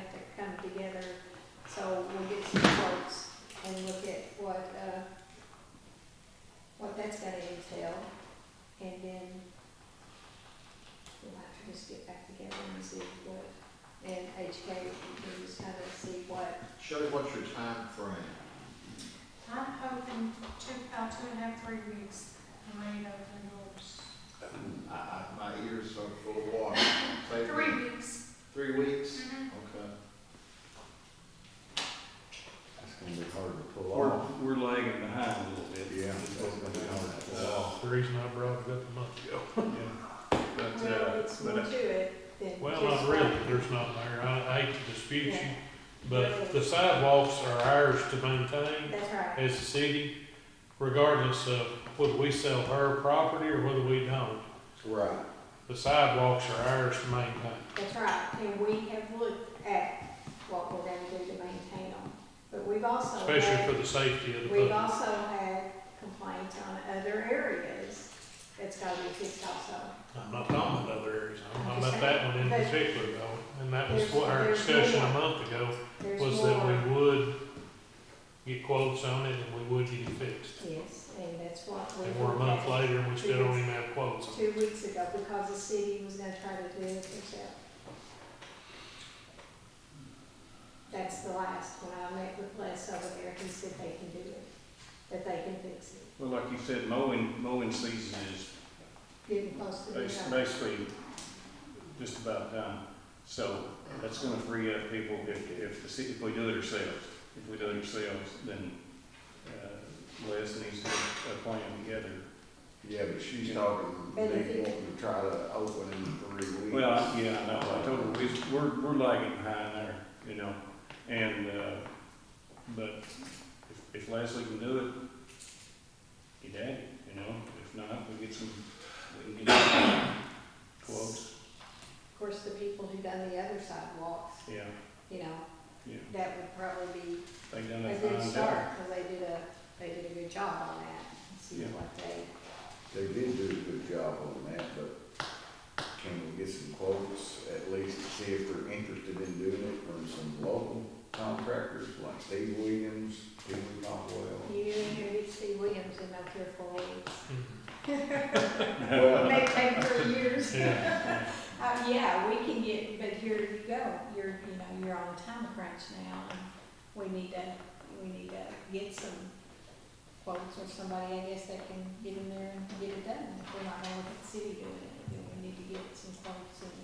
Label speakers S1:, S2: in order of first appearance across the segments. S1: uh, and we'll have to just get back together and see what, and HK, we just kind of see what,
S2: Shelley, what's your time frame?
S3: I'm hoping two, about two and a half, three weeks, I may open doors.
S2: I, I, my ears are full of water. Say
S3: Three weeks.
S2: Three weeks?
S3: Mhm.
S2: Okay.
S4: That's gonna be hard to pull
S5: We're,
S4: off.
S5: we're lagging behind a little bit.
S2: Yeah.
S5: It's gonna be hard to pull off.
S6: The reason I brought it up a month ago.
S2: But,
S1: well,
S2: uh,
S1: it's more
S2: but,
S1: to it than.
S6: Well,
S1: just
S6: not really, there's not there, I I hate to dispute you,
S1: Yeah.
S6: but the sidewalks are ours to maintain
S1: That's right,
S6: as a city, regardless of whether we sell her property or whether we don't.
S4: Right.
S6: The sidewalks are ours to maintain.
S1: that's right, and we have looked at what we're gonna do to maintain them, but we've also. had-
S6: especially for the safety of the
S1: We've
S6: public.
S1: also had complaints on other areas that's gotta be fixed also.
S6: I'm not talking about other areas, I'm talking about that one in
S1: But-
S6: particular though, and that was
S1: There's-
S6: what our
S1: there's
S6: discussion a
S1: more.
S6: month ago,
S1: There's
S6: was that
S1: more.
S6: we would get quotes on it and we would get it fixed.
S1: Yes, and that's what we.
S6: And we're a month
S1: looked
S6: later and we still don't even have quotes
S1: at
S6: on it.
S1: Two weeks ago, because the city was gonna try to do it herself. That's the last one I met with Les over there, he said they can do it, that they can fix it,
S5: Well, like you said, mowing, mowing season is
S1: getting close to the
S5: bas-
S1: time.
S5: basically just about done. So that's gonna free up people if, if the city, if we do it ourselves. If we do it ourselves, then, uh, Les needs to put a plan together.
S4: Yeah, but she's talking, they
S1: But if you-
S4: wanting to try to open in three weeks.
S5: Well, I- yeah, I know, I told her, we- we're, we're lagging behind there, you know, and, uh, but if- if Leslie can do it, get at it, you know, if not, we get some, we can get some quotes,
S1: Of course, the people who done the other sidewalks,
S5: yeah,
S1: you know,
S5: yeah,
S1: that would probably be
S5: they done
S1: a
S5: a
S1: good
S5: fine
S1: start,
S5: job.
S1: because they did a, they did a good job on that, and see
S5: Yeah.
S1: what they,
S4: They did do a good job on that, but can we get some quotes at least to see if they're interested in doing it from some local contractors like Steve Williams, Steve Caldwell?
S1: you and here, you see Williams in up here for weeks.
S6: Mm-hmm.
S4: Well,
S1: May take for years.
S6: Yeah,
S1: Uh, yeah, we can get, but here you go, you're, you know, you're on a time crunch now, and we need to, we need to get some quotes or somebody, I guess, that can get in there and get it done. If we're not gonna look at the city doing it, then we need to get some quotes and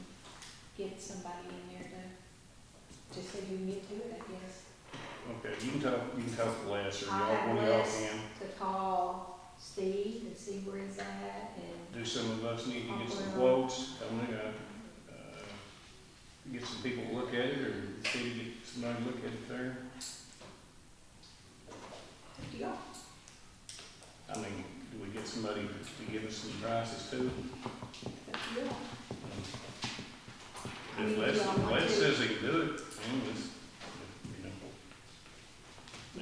S1: get somebody in there to, just so you can get to it, I guess.
S5: Okay, you can talk, you can talk to Les, or
S1: I'll
S5: y'all,
S1: have
S5: one of y'all
S1: Les.
S5: can,
S1: To call Steve and see where he's at, and
S5: do some of us need to get some
S1: I'll-
S5: quotes, I'm gonna, uh, get some people to look at it, or see, if get somebody to look at it there.
S1: do y'all
S5: I mean, do we get somebody to give us some prices too?
S1: That's real. I mean,
S5: If
S1: do
S5: Les,
S1: y'all want
S5: Les
S1: to-
S5: says he can do it, then let's, you know,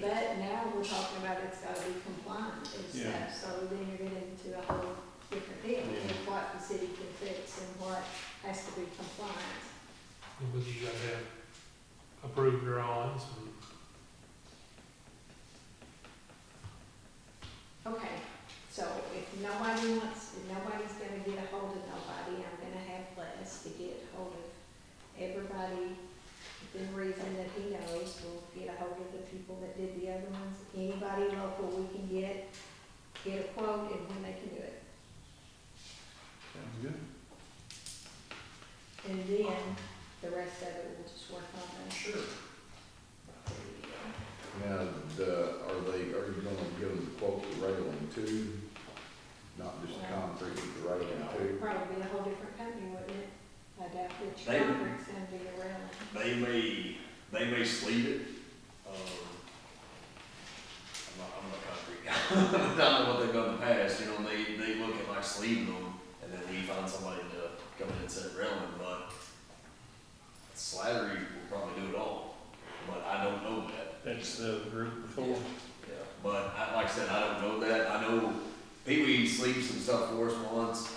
S1: But now we're talking about it's gotta be compliant and
S5: Yeah.
S1: stuff, so then you're getting into a whole different deal
S5: Yeah.
S1: of what the city can fix and what has to be compliant.
S6: and with you gotta have approved drawings and
S1: Okay, so if nobody wants, if nobody's gonna get a hold of nobody, I'm gonna have Les to get a hold of everybody. within reason that he knows, we'll get a hold of the people that did the other ones, anybody local we can get, get a quote and when they can do it.
S5: sounds good.
S1: And then the rest of it, we'll just work on that.
S5: Sure.
S4: Now, the, uh, are they, are you gonna give them quote the railing too? Not just concrete, the railing too?
S1: Probably be a whole different company, wouldn't it? I doubt that
S7: They-
S1: your fabric's gonna be around.
S7: They may, they may sleeve it, um, I'm not, I'm not a concrete guy. I don't know what they've done in the past, you know, and they, they look at like sleeving them, and then we find somebody to come in and set railing, but Slattery will probably do it all, but I don't know that.
S5: That's the group before.
S7: Yeah, but I, like I said, I don't know that, I know Pee Wee sleeved some stuff for us once,